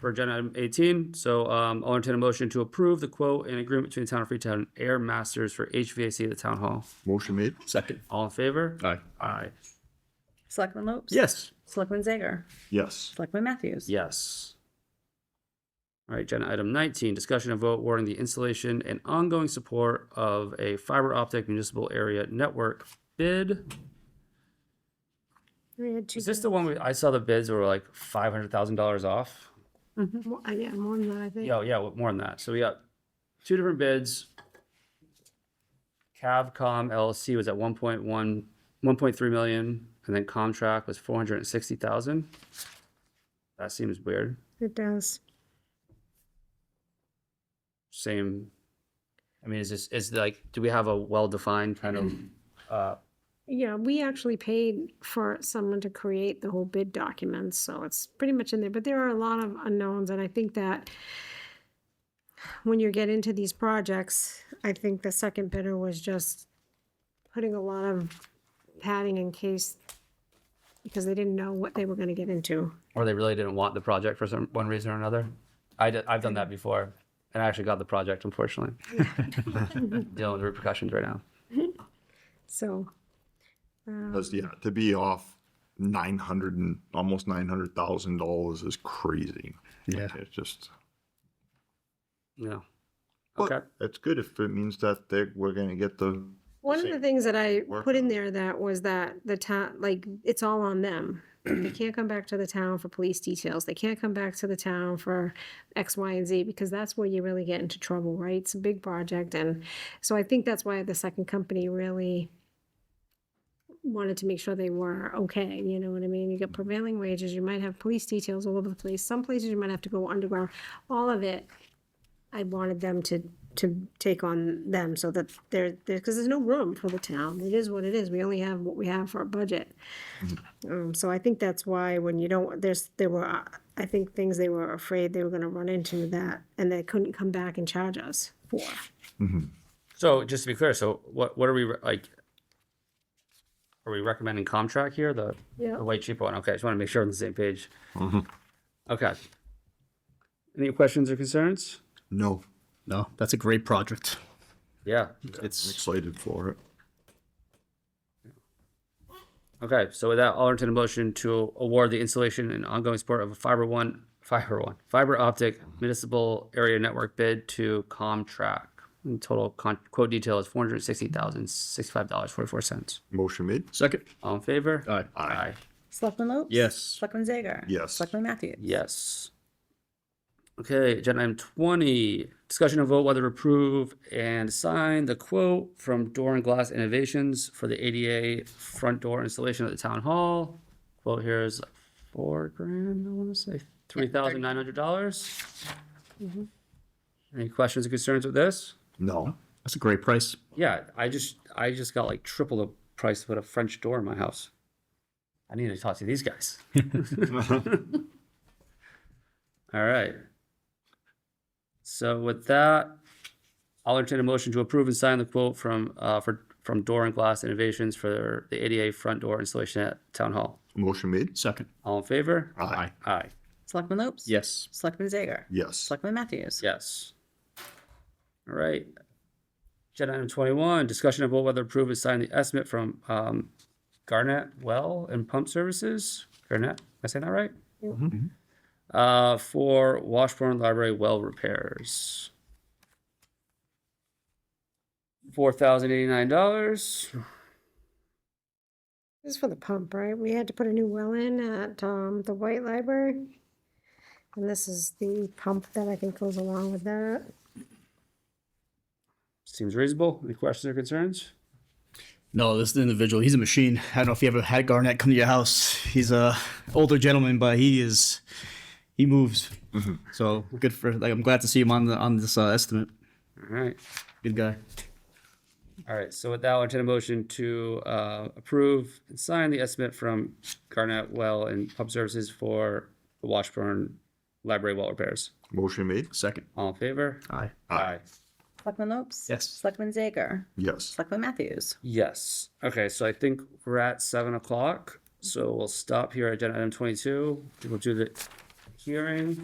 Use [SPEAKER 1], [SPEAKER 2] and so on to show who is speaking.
[SPEAKER 1] for agenda item eighteen. So um, I'll entertain a motion to approve the quote and agreement between the Town of Freetown and Air Masters for HVAC at the Town Hall.
[SPEAKER 2] Motion made.
[SPEAKER 3] Second.
[SPEAKER 1] All in favor?
[SPEAKER 3] Aye.
[SPEAKER 1] Aye.
[SPEAKER 4] Selectman Lopes?
[SPEAKER 3] Yes.
[SPEAKER 4] Selectman Zager?
[SPEAKER 2] Yes.
[SPEAKER 4] Selectman Matthews?
[SPEAKER 1] Yes. All right, agenda item nineteen, discussion and vote warning the installation and ongoing support of a fiber optic municipal area network bid.
[SPEAKER 5] I had two.
[SPEAKER 1] Is this the one we, I saw the bids were like five hundred thousand dollars off?
[SPEAKER 4] Mm-hmm.
[SPEAKER 5] Mo- uh, Yeah, more than that, I think.
[SPEAKER 1] Yeah, yeah, well, more than that. So we got two different bids. Cavcom LLC was at one point one, one point three million, and then Comtrack was four hundred and sixty thousand. That seems weird.
[SPEAKER 5] It does.
[SPEAKER 1] Same. I mean, is this, is like, do we have a well-defined kind of, uh,
[SPEAKER 5] Yeah, we actually paid for someone to create the whole bid documents, so it's pretty much in there, but there are a lot of unknowns, and I think that when you get into these projects, I think the second bidder was just putting a lot of padding in case, because they didn't know what they were gonna get into.
[SPEAKER 1] or they really didn't want the project for some, one reason or another? I did, I've done that before, and I actually got the project, unfortunately. Dealing with repercussions right now.
[SPEAKER 5] So, um,
[SPEAKER 2] Because yeah, to be off nine hundred and almost nine hundred thousand dollars is crazy.
[SPEAKER 3] Yeah.
[SPEAKER 2] It's just.
[SPEAKER 1] Yeah.
[SPEAKER 2] But
[SPEAKER 1] Okay.
[SPEAKER 2] It's good if it means that they we're gonna get the
[SPEAKER 5] One of the things that I
[SPEAKER 2] work
[SPEAKER 5] put in there that was that the town, like, it's all on them. They can't come back to the town for police details. They can't come back to the town for X, Y, and Z because that's where you really get into trouble, right? It's a big project. And so I think that's why the second company really wanted to make sure they were okay. You know what I mean? You get prevailing wages, you might have police details all over the place. Some places you might have to go underground. All of it I wanted them to, to take on them so that there, because there's no room for the town. It is what it is. We only have what we have for our budget. Um, so I think that's why when you don't, there's, there were, uh, I think things they were afraid they were gonna run into that and they couldn't come back and charge us for.
[SPEAKER 1] So just to be clear, so what, what are we re- like? Are we recommending Comtrack here, the,
[SPEAKER 5] Yeah.
[SPEAKER 1] the way cheaper one? Okay, just want to make sure we're on the same page. Okay. Any questions or concerns?
[SPEAKER 2] no.
[SPEAKER 3] No, that's a great project.
[SPEAKER 1] Yeah.
[SPEAKER 2] I'm
[SPEAKER 3] It's
[SPEAKER 2] excited for it.
[SPEAKER 1] Okay, so with that, I'll entertain a motion to award the installation and ongoing support of a fiber one, fiber one, fiber optic municipal area network bid to Comtrack. And Total con- quote detail is four hundred sixty thousand sixty-five dollars forty-four cents.
[SPEAKER 2] Motion made.
[SPEAKER 3] second.
[SPEAKER 1] All in favor?
[SPEAKER 3] Aye.
[SPEAKER 1] Aye.
[SPEAKER 4] Selectman Lopes?
[SPEAKER 3] Yes.
[SPEAKER 4] Selectman Zager?
[SPEAKER 2] Yes.
[SPEAKER 4] Selectman Matthews?
[SPEAKER 1] Yes. Okay, agenda item twenty, discussion and vote whether to approve and sign the quote from Door and Glass Innovations for the ADA front door installation at the town hall. Quote here is like four grand, I wanna say, three thousand nine hundred dollars. Any questions or concerns with this?
[SPEAKER 2] No.
[SPEAKER 3] That's a great price.
[SPEAKER 1] Yeah, I just, I just got like triple the price to put a French door in my house. I need to talk to these guys. All right. So with that, I'll entertain a motion to approve and sign the quote from, uh, for, from Door and Glass Innovations for the ADA front door installation at Town Hall.
[SPEAKER 2] Motion made.
[SPEAKER 3] Second.
[SPEAKER 1] All in favor?
[SPEAKER 2] Aye.
[SPEAKER 1] Aye.
[SPEAKER 4] Selectman Lopes?
[SPEAKER 3] Yes.
[SPEAKER 4] Selectman Zager?
[SPEAKER 2] Yes.
[SPEAKER 4] Selectman Matthews?
[SPEAKER 1] Yes. All right. Agenda item twenty-one, discussion of whether to approve and sign the estimate from, um, Garnet Well and Pump Services, Garnet, am I saying that right? Uh, for Washburn Library well repairs. Four thousand eighty-nine dollars.
[SPEAKER 5] This is for the pump, right? We had to put a new well in at, um, the White Library. And this is the pump that I think goes along with that.
[SPEAKER 1] Seems reasonable. Any questions or concerns?
[SPEAKER 3] No, this is an individual. He's a machine. I don't know if you ever had Garnett come to your house. He's a older gentleman, but he is he moves. So good for like I'm glad to see him on the on this uh, estimate.
[SPEAKER 1] All right.
[SPEAKER 3] Good guy.
[SPEAKER 1] All right, so with that, I'll entertain a motion to uh, approve and sign the estimate from Garnet Well and Pump Services for the Washburn Library well repairs.
[SPEAKER 2] Motion made.
[SPEAKER 3] Second.
[SPEAKER 1] All in favor?
[SPEAKER 3] Aye.
[SPEAKER 1] Aye.
[SPEAKER 4] Selectman Lopes?
[SPEAKER 3] Yes.
[SPEAKER 4] Selectman Zager?
[SPEAKER 2] Yes.
[SPEAKER 4] Selectman Matthews?
[SPEAKER 1] Yes. Okay, so I think we're at seven o'clock, so we'll stop here at agenda item twenty-two. We'll do the hearing.